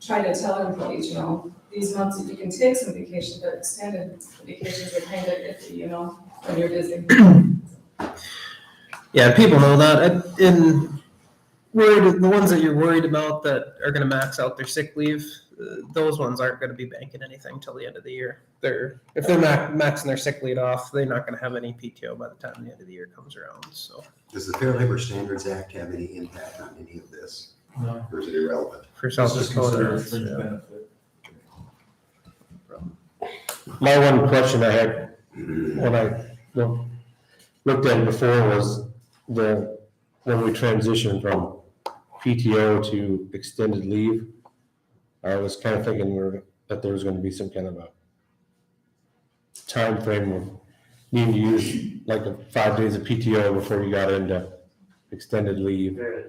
try to tell employees, you know, these months if you can take some vacation, but extended vacations are kind of iffy, you know, when you're busy. Yeah, people know that. I- And worried, the ones that you're worried about that are going to max out their sick leave, uh, those ones aren't going to be banking anything till the end of the year. They're if they're max, maxing their sick leave off, they're not going to have any PTO by the time the end of the year comes around. So Does the Fair Labor Standards Act have any impact on any of this, No. or is it irrelevant? for South This is Dakota, considered a it's, fringe yeah. benefit. My one question I had when I loo- looked at it before was the, when we transitioned from PTO to extended leave, I was kind of thinking we're, that there was gonna be some kind of a time frame of needing to use like the five days of PTO before you got into extended leave. There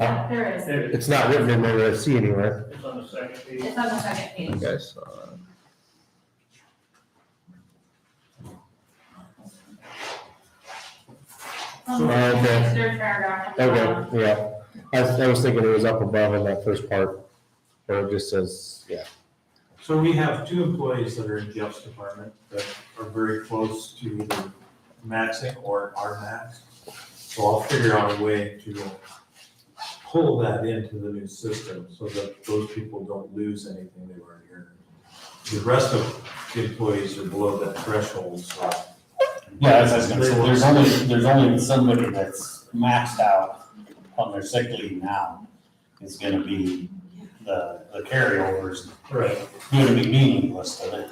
Uh, There is, it is. It's not written in there that I see anywhere. It's on the second page. it's on the second page. You guys uh, saw that. Um, Oh, Okay. Third paragraph. on the bottom. Okay, yeah. I, was- I was thinking it was up above in that first part, where it just says, yeah. So we have two employees that are in Jeff's department that are very close to either maxing or are maxed. So I'll figure out a way to pull that into the new system so that those people don't lose anything they were earning. The rest of the employees are below that threshold, so. Yeah, that's what I was gonna say, there's only, there's only somebody that's maxed out on their sick leave now is gonna be the, the carryovers, Right. gonna be meaningless to them.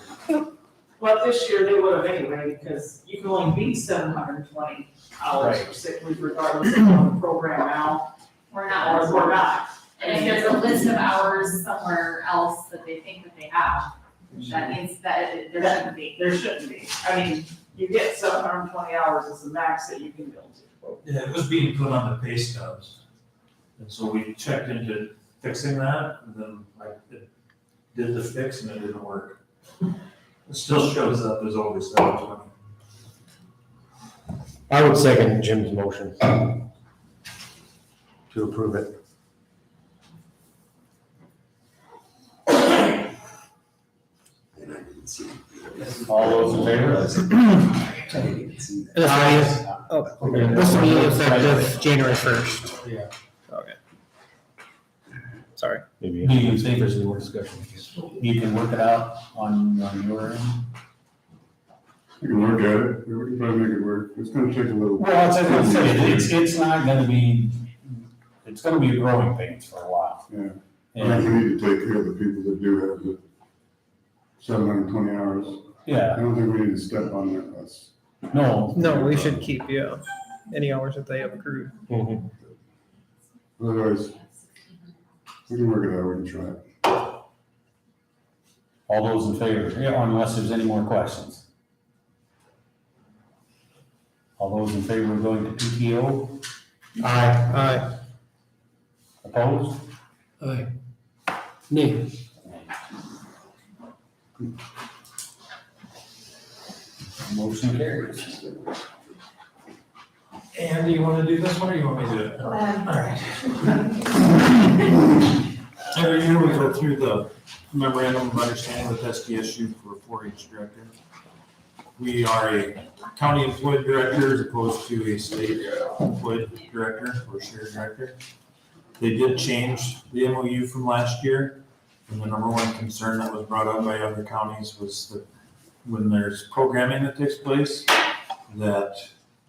Well, this year they would have anyway, because you can only be seven hundred and twenty hours for sick leave regardless of on the program now, We're or not, if we're not. and if there's a list of hours somewhere else that they think that they have, Mm-hmm. that means that it- there shouldn't be. There shouldn't be. I mean, you get seven hundred and twenty hours is the max that you can build to. Yeah, it was being put on the pay stubs. And so we checked into fixing that, and then I did the fix and it didn't work. It still shows up as always seven twenty. I would second Jim's motion. To approve it, and I didn't see. All those in favor? I didn't see that. Oh, This Okay. will be effective January first. Yeah. Okay. Sorry. Maybe. Do you think there's more discussion? You can work it out on, on your end. We can look at it, we can try to make it work, it's gonna take a little. Well, it's, it's, it's not gonna be, it's gonna be growing pains for a while. Yeah. I think And, we need to take care of the people that do have the seven hundred and twenty hours. yeah, I don't think we need to step on their bus. no, No, we should keep yeah any hours that they have accrued. Mm-hmm. Otherwise, we can work it out, we can try it. all those in favor, yeah, unless there's any more questions. All those in favor of going to PTO? Aye. Aye. Opposed? Nay. Motion carries. And do you wanna do this one, or you want me to do it? Um, Alright. Every year we go through the memorandum of understanding with SDSU for a four-H director. We are a county employed director as opposed to a state employed director or shared director. They did change the MOU from last year, and the number one concern that was brought up by other counties was that when there's programming that takes place, that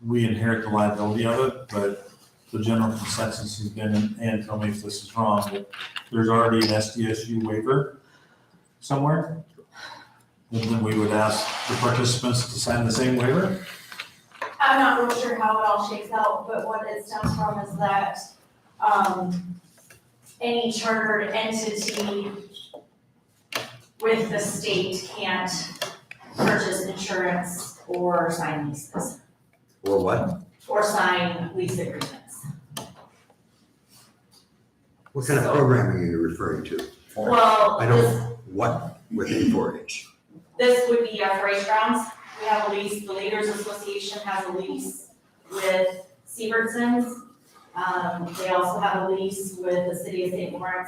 we inherit the liability of it, but the general consensus has been, and Ann, tell me if this is wrong, that there's already an SDSU waiver somewhere. And then we would ask the participants to sign the same waiver. I'm not real sure how it all shakes out, but what it stems from is that, um, any chartered entity with the state can't purchase insurance or sign leases, Or what? or sign lease agreements. What kind of programming are you referring to? Well, I this, don't, what within four H? this would be our parade grounds, we have a lease, the Leaders Association has a lease with Severson's. Um, they also have a lease with the city of St. Lawrence